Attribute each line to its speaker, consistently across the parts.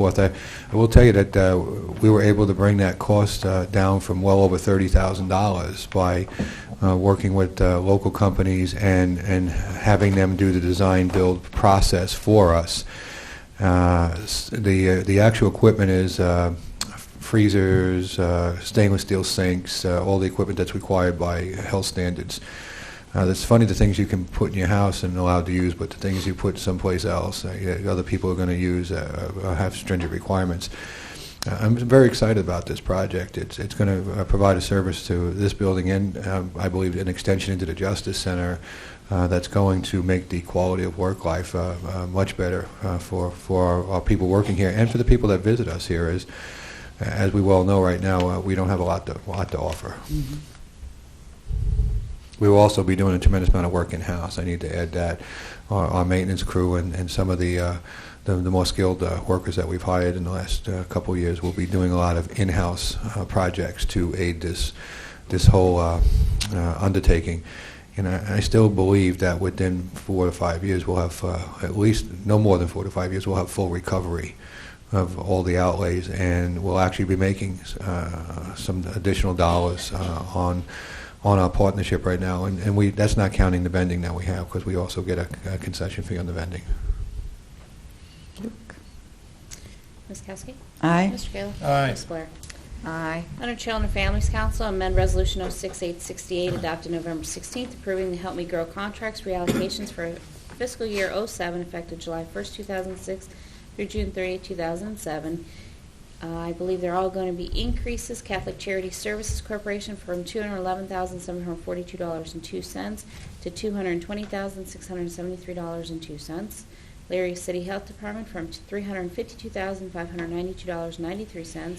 Speaker 1: forth. I I will tell you that uh, we were able to bring that cost uh, down from well over $30,000 by uh, working with uh, local companies and and having them do the design-build process for us. Uh, s- The uh, the actual equipment is uh, freezers, uh, stainless steel sinks, uh, all the equipment that's required by health standards. Uh, It's funny the things you can put in your house and allowed to use, but the things you put someplace else, uh, yeah, other people are going to use, uh, uh, have stringent requirements. Uh, I'm very excited about this project. It's it's going to provide a service to this building and, um, I believe, an extension into the Justice Center uh, that's going to make the quality of work life uh, uh, much better uh, for for our- our people working here and for the people that visit us here. As as we well know right now, uh, we don't have a lot to lot to offer. We will also be doing a tremendous amount of work in-house. I need to add that. Our, our maintenance crew and, and some of the, uh, the, the more skilled uh, workers that we've hired in the last uh, couple of years will be doing a lot of in-house uh, projects to aid this, this whole uh, uh, undertaking. And I, I still believe that within four to five years, we'll have, uh, at least, no more than four to five years, we'll have full recovery of all the outlays, and we'll actually be making uh, some additional dollars uh, on on our partnership right now, and and we, that's not counting the vending that we have, because we also get a a concession fee on the vending.
Speaker 2: Ms. Kowski?
Speaker 3: Aye.
Speaker 2: Mr. Kayla?
Speaker 4: Aye.
Speaker 2: Ms. Blair?
Speaker 3: Aye.
Speaker 2: Under Children and Families Council, amend Resolution 06868 adopted November 16th, approving the Help Me Grow contracts reallocations for fiscal year 07 effective July 1st, 2006 through June 30th, 2007. Uh, I believe they're all going to be increases. Catholic Charity Services Corporation from $211,742.02 to $220,673.02. Larry City Health Department from $352,592.93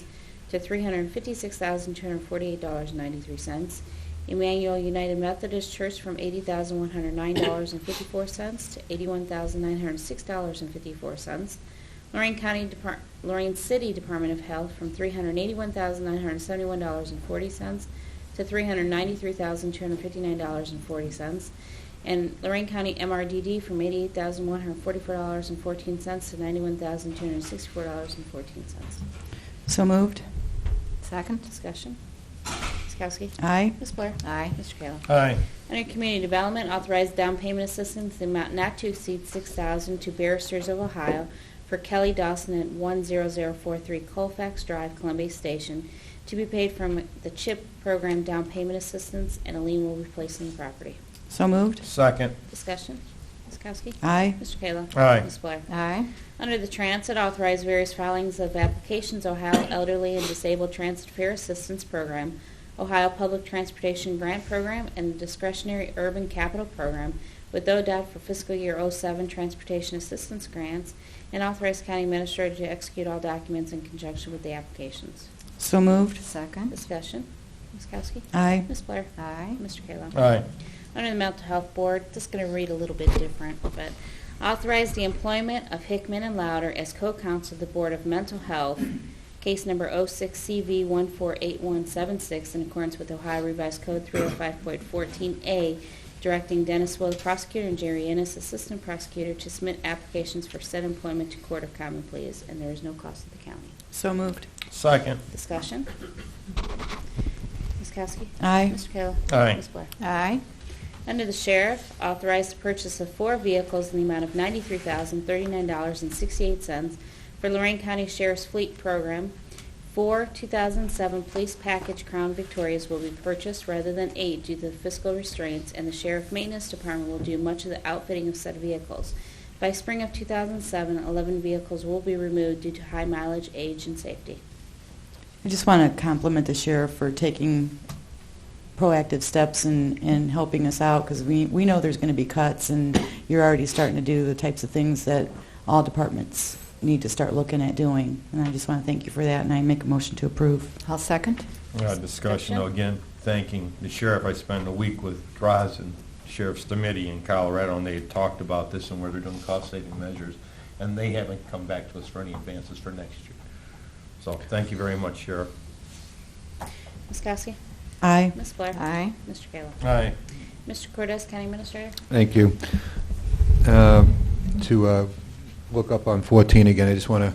Speaker 2: to $356,248.93. Emmanuel United Methodist Church from $80,109.54 to $81,906.54. Lorraine County Depart- Lorraine City Department of Health from $381,971.40 to $393,259.40. And Lorraine County MRDD from $88,144.14 to $91,264.14.
Speaker 3: So moved.
Speaker 2: Second. Discussion. Ms. Kowski?
Speaker 3: Aye.
Speaker 2: Ms. Blair? Aye. Mr. Kayla?
Speaker 4: Aye.
Speaker 2: Under Community Development, authorize down payment assistance in amount not to exceed 6000 to Barristers of Ohio for Kelly Dawson at 10043 Colfax Drive, Columbia Station, to be paid from the CHIP program down payment assistance, and a lien will be placed on the property.
Speaker 3: So moved.
Speaker 4: Second.
Speaker 2: Discussion. Ms. Kowski?
Speaker 3: Aye.
Speaker 2: Mr. Kayla?
Speaker 4: Aye.
Speaker 2: Ms. Blair?
Speaker 3: Aye.
Speaker 2: Under the Transit, authorize various filings of applications Ohio Elderly and Disabled Transit Fair Assistance Program, Ohio Public Transportation Grant Program, and the Discretionary Urban Capital Program with ODOT for fiscal year 07 transportation assistance grants, and authorize county administrator to execute all documents in conjunction with the applications.
Speaker 3: So moved.
Speaker 5: Second.
Speaker 2: Discussion. Ms. Kowski?
Speaker 3: Aye.
Speaker 2: Ms. Blair?
Speaker 5: Aye.
Speaker 2: Mr. Kayla?
Speaker 4: Aye.
Speaker 2: Under the Mental Health Board, just going to read a little bit different, but authorize the employment of Hickman and Louder as co-counsel of the Board of Mental Health, case number 06CV148176, in accordance with Ohio Revised Code 305.14A, directing Dennis Will, prosecutor, and Jerry Ennis, assistant prosecutor, to submit applications for said employment to Court of Common Pleas, and there is no cost to the county.
Speaker 3: So moved.
Speaker 4: Second.
Speaker 2: Discussion? Ms. Kowski?
Speaker 3: Aye.
Speaker 2: Mr. Kayla?
Speaker 4: Aye.
Speaker 2: Ms. Blair?
Speaker 5: Aye.
Speaker 2: Under the sheriff, authorized the purchase of four vehicles in the amount of $93,039.68 for Lorraine County Sheriff's Fleet Program. Four 2007 Police Package Crown Victorias will be purchased rather than eight due to the fiscal restraints, and the Sheriff Maintenance Department will do much of the outfitting of said vehicles. By spring of 2007, 11 vehicles will be removed due to high mileage, age, and safety.
Speaker 3: I just want to compliment the sheriff for taking proactive steps and, and helping us out because we, we know there's going to be cuts and you're already starting to do the types of things that all departments need to start looking at doing. And I just want to thank you for that and I make a motion to approve.
Speaker 5: I'll second.
Speaker 4: Uh, Discussion, though, again, thanking the sheriff. I spent a week with Droz and Sheriff's Committee in Colorado, and they had talked about this and where they're doing cost-saving measures, and they haven't come back to us for any advances for next year. So, thank you very much, Sheriff.
Speaker 2: Ms. Kowski?
Speaker 3: Aye.
Speaker 2: Ms. Blair?
Speaker 5: Aye.
Speaker 2: Mr. Kayla?
Speaker 4: Aye.
Speaker 2: Mr. Cortez, County Administrator?
Speaker 1: Thank you. uh, Um, To uh, look up on 14 again, I just want to